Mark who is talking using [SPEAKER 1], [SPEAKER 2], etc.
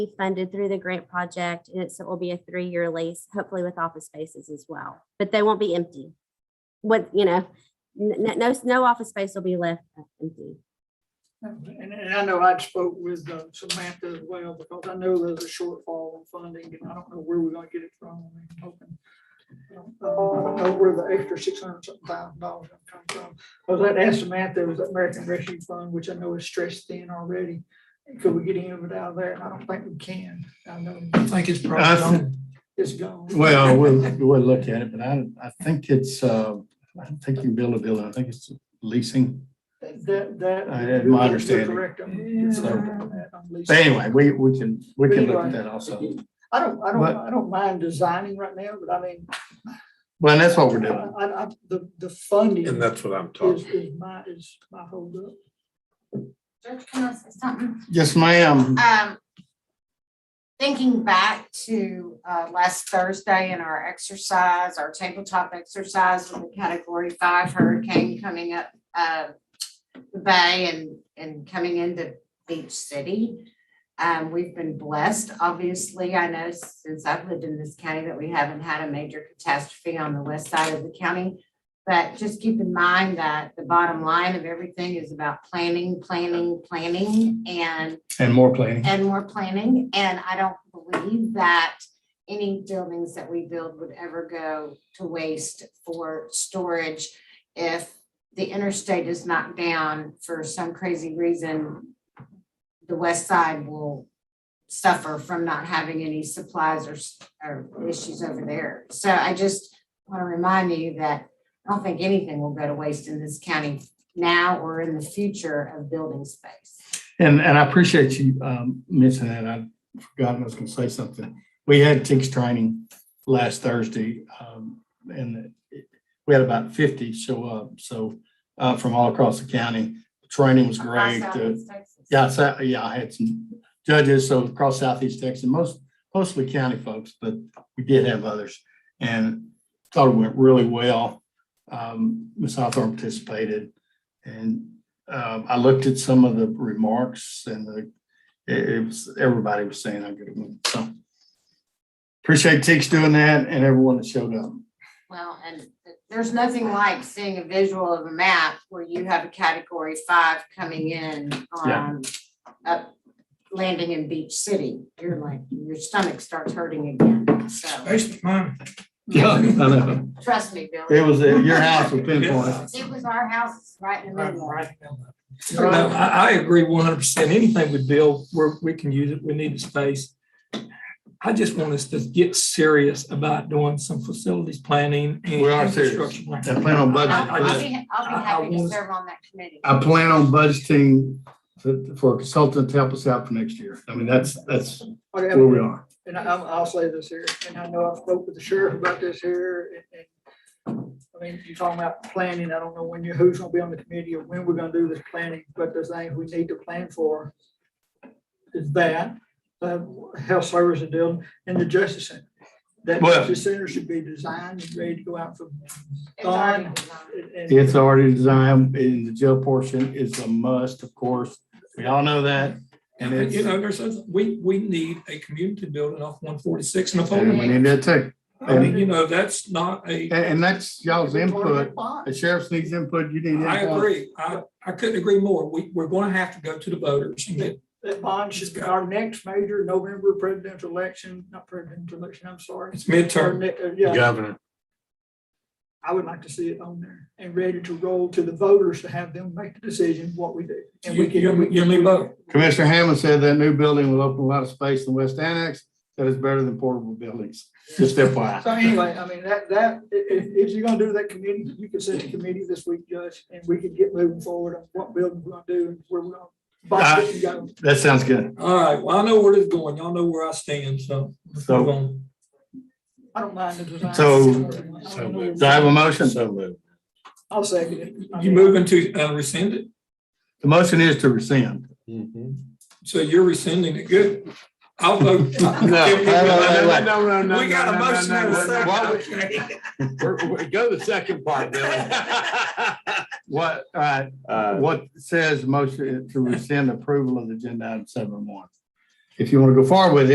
[SPEAKER 1] be funded through the grant project and it's, it will be a three-year lease, hopefully with office spaces as well, but they won't be empty. What, you know, no, no, no office space will be left empty.
[SPEAKER 2] And, and I know I'd spoke with uh, Samantha as well, because I know there's a shortfall in funding, and I don't know where we're gonna get it from. I'm hoping- uh, I don't know where the extra six hundred something thousand dollars come from. I was going to ask Samantha, it was the American Rescue Fund, which I know is stretched thin already. Could we get any of it out of there? And I don't think we can. I know, I think it's
[SPEAKER 3] I
[SPEAKER 2] probably
[SPEAKER 3] th-
[SPEAKER 2] gone. It's gone.
[SPEAKER 3] Well, we'll, we'll look at it, but I, I think it's, uh, I don't think you build a building, I think it's leasing.
[SPEAKER 2] That, that.
[SPEAKER 3] I- in my
[SPEAKER 2] you're
[SPEAKER 3] understanding.
[SPEAKER 2] correct on- you're
[SPEAKER 3] So-
[SPEAKER 2] correct on that, on leasing.
[SPEAKER 3] But anyway, we, we can, we can look at that also.
[SPEAKER 2] I don't, I don't,
[SPEAKER 3] But-
[SPEAKER 2] I don't mind designing right now, but I mean.
[SPEAKER 3] Well, and that's what we're doing.
[SPEAKER 2] I, I, the, the funding
[SPEAKER 4] And that's what I'm
[SPEAKER 2] is,
[SPEAKER 4] talking,
[SPEAKER 2] is my, is my holdup.
[SPEAKER 5] George, can I say something?
[SPEAKER 3] Yes, ma'am.
[SPEAKER 5] Um, thinking back to, uh, last Thursday in our exercise, our tabletop exercise with the category five hurricane coming up, uh, the bay and, and coming into Beach City. Um, we've been blessed, obviously. I know since I've lived in this county that we haven't had a major catastrophe on the west side of the county. But just keep in mind that the bottom line of everything is about planning, planning, planning, and
[SPEAKER 3] And more planning.
[SPEAKER 5] and more planning, and I don't believe that any buildings that we build would ever go to waste for storage if the interstate is knocked down for some crazy reason. The west side will suffer from not having any supplies or, s- or issues over there. So I just want to remind you that I don't think anything will go to waste in this county now or in the future of building space.
[SPEAKER 3] And, and I appreciate you um, mentioning that. I forgot I was going to say something. We had TICS training last Thursday, um, and it- we had about 50 show up, so uh, from all across the county. The Training was great. uh,
[SPEAKER 5] Across
[SPEAKER 3] The-
[SPEAKER 5] Southeast Texas.
[SPEAKER 3] Yeah, so, yeah, I had some judges, so across southeast Texas, most, mostly county folks, but we did have others. And thought it went really well. Um, Ms. Hawthorne participated. And, um, I looked at some of the remarks and the, it, it was, everybody was saying how good it went, so. Appreciate Teeks doing that and everyone that showed up.
[SPEAKER 5] Well, and there's nothing like seeing a visual of a map where you have a category five coming in
[SPEAKER 3] Yeah.
[SPEAKER 5] on up landing in Beach City. You're like, your stomach starts hurting again. So
[SPEAKER 3] I know.
[SPEAKER 5] trust me,
[SPEAKER 3] It
[SPEAKER 5] Billy.
[SPEAKER 3] was at your house with pinpoint.
[SPEAKER 5] It was our house right in the middle.
[SPEAKER 6] No, I, I agree one hundred percent. Anything we build, we're, we can use it. We need the space. I just want us to get serious about doing some facilities planning and
[SPEAKER 3] We are serious.
[SPEAKER 6] infrastructure planning.
[SPEAKER 3] I plan on budget.
[SPEAKER 5] I'll I'll
[SPEAKER 3] budget.
[SPEAKER 5] be, I'll
[SPEAKER 6] I- I
[SPEAKER 5] be happy to
[SPEAKER 6] wanna-
[SPEAKER 5] serve on that committee.
[SPEAKER 3] I plan on budgeting for- for a consultant to help us out for next year. I mean, that's, that's
[SPEAKER 2] Okay,
[SPEAKER 3] where we are.
[SPEAKER 2] And I, I'll I'll say this here, and I know I spoke with the sheriff about this here, and, and, I mean, you're talking about planning, I don't know when you, who's gonna be on the committee or when we're gonna do this planning, but the thing we need to plan for is that, uh, health services deal and the justice center. That
[SPEAKER 3] Well-
[SPEAKER 2] justice center should be designed and ready to go out for.
[SPEAKER 5] It's already designed.
[SPEAKER 2] and-
[SPEAKER 3] It's already designed and the jail portion is a must, of course. We all know that. And
[SPEAKER 6] And, you
[SPEAKER 3] it's,
[SPEAKER 6] know, there's, a- we, we need a community building off one forty-six
[SPEAKER 3] and we
[SPEAKER 6] Napoleon.
[SPEAKER 3] need that too.
[SPEAKER 6] I mean, you know, that's not a,
[SPEAKER 3] And, and that's y'all's input.
[SPEAKER 2] Why?
[SPEAKER 3] The sheriff's needs input, you need input.
[SPEAKER 6] I agree. I, I couldn't agree more. We, we're gonna have to go to the voters and get,
[SPEAKER 2] That bond should be our next major November presidential election, not presidential election, I'm sorry.
[SPEAKER 6] it's midterm.
[SPEAKER 2] Our ne- uh, Yeah,
[SPEAKER 4] governor.
[SPEAKER 2] I would like to see it on there and ready to roll to the voters to have them make the decision what we do. And
[SPEAKER 6] You,
[SPEAKER 2] we
[SPEAKER 6] you,
[SPEAKER 2] can,
[SPEAKER 6] you leave vote.
[SPEAKER 3] Commissioner Hammond said that new building will open a lot of space in West Annex. That is better than portable buildings. Just FYI.
[SPEAKER 2] so anyway, I mean, that, that, i- i- if you're gonna do that committee, you can set a committee this week, Judge, and we can get moving forward on what building we're gonna do and where we're gonna. box it and go.
[SPEAKER 3] That sounds good.
[SPEAKER 6] All right. Well, I know where this is going. Y'all know where I stand, so. let's
[SPEAKER 3] So-
[SPEAKER 6] move on.
[SPEAKER 2] I don't mind the design.
[SPEAKER 3] So-
[SPEAKER 2] I don't know.
[SPEAKER 3] Do I have a motion?
[SPEAKER 4] moved.
[SPEAKER 2] I'll second it. I
[SPEAKER 6] You
[SPEAKER 2] mean,
[SPEAKER 6] moving to uh, rescind it?
[SPEAKER 3] The motion is to rescind.
[SPEAKER 6] So you're rescinding it, good. I'll vote.
[SPEAKER 3] no,
[SPEAKER 4] No, no, no.
[SPEAKER 6] We got a motion and a second.
[SPEAKER 4] second. Go to the second part, Billy.
[SPEAKER 3] What, all right,
[SPEAKER 4] Uh,
[SPEAKER 3] What says motion to rescind approval of agenda item seven one? if you want to go forward with it,